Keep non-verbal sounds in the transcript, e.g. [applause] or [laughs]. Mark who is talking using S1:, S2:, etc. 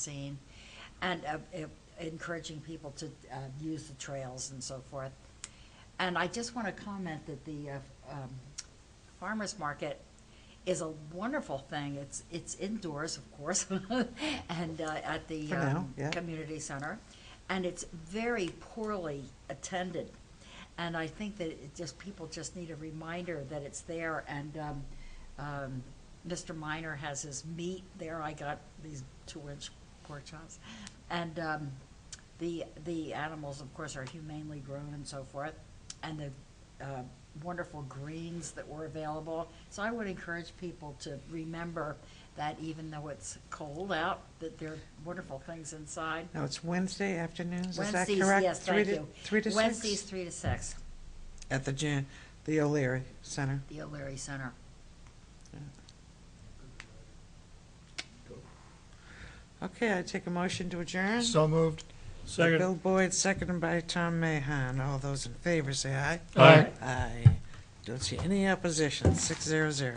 S1: scene, and uh, e- encouraging people to uh, use the trails and so forth. And I just want to comment that the uh, um, farmers market is a wonderful thing. It's it's indoors, of course, [laughs] and uh, at the
S2: For now,
S1: um,
S2: yeah.
S1: community center, and it's very poorly attended. And I think that it just people just need a reminder that it's there. And um, um, Mr. Miner has his meat there. I got these two-inch pork chops, and um, the the animals, of course, are humanely grown and so forth, and the uh, wonderful greens that were available. So I would encourage people to remember that even though it's cold out, that there are wonderful things inside.
S2: Now, it's Wednesday afternoons, is that
S1: Wednesdays,
S2: correct?
S1: yes,
S2: Three
S1: thank
S2: to-
S1: you.
S2: Three to
S1: Wednesdays,
S2: six?
S1: three to six,
S2: At the Jan, the O'Leary Center.
S1: the O'Leary Center.
S2: Okay, I take a motion to adjourn.
S3: So moved.
S2: By Bill Boyd, seconded by Tom Mahon. All those in favor, say aye.
S3: Aye.
S2: Aye. Don't see any opposition, six zero zero.